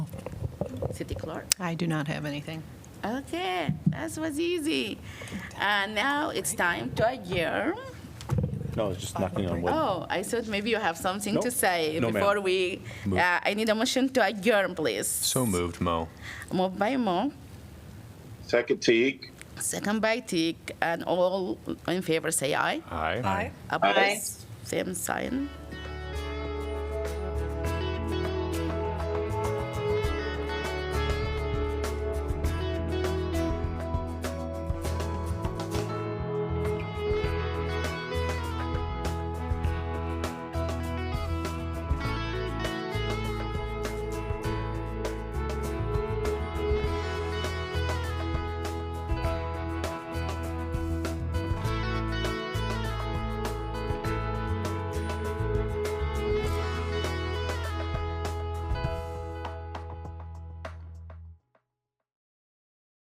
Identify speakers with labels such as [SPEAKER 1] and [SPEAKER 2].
[SPEAKER 1] City Clerk.
[SPEAKER 2] I do not have anything.
[SPEAKER 1] Okay, that was easy. Uh, Now it's time to adjourn.
[SPEAKER 3] No, it's just knocking on wood.
[SPEAKER 1] Oh, I thought maybe you have something to
[SPEAKER 3] Nope.
[SPEAKER 1] say
[SPEAKER 3] No, ma'am.
[SPEAKER 1] before we,
[SPEAKER 3] Move.
[SPEAKER 1] uh, I need a motion to adjourn, please.
[SPEAKER 4] So moved, Mo.
[SPEAKER 1] Moved by Mo,
[SPEAKER 5] Second Teague.
[SPEAKER 1] second by Tick, and all in favor say aye.
[SPEAKER 4] Aye.
[SPEAKER 1] Opposed, same sign.